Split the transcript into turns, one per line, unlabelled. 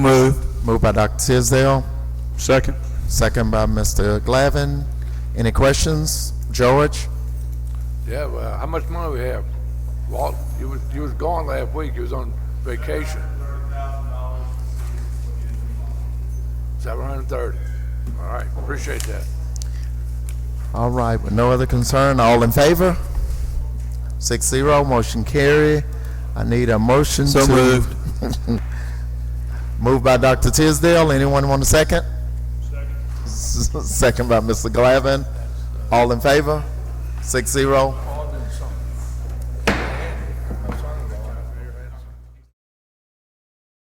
Move. Moved by Dr. Tisdale,
Second.
second by Mr. Glavin. Any questions? George?
Yeah, well, how much money we have? Walt, you was, you was gone last week, you was on vacation. Seven hundred and thirty. All right, appreciate that.
All right, with no other concern, all in favor? Six zero, motion carry. I need a motion to.
So moved.
Moved by Dr. Tisdale. Anyone want a second? Second. Second by Mr. Glavin. All in favor? Six zero.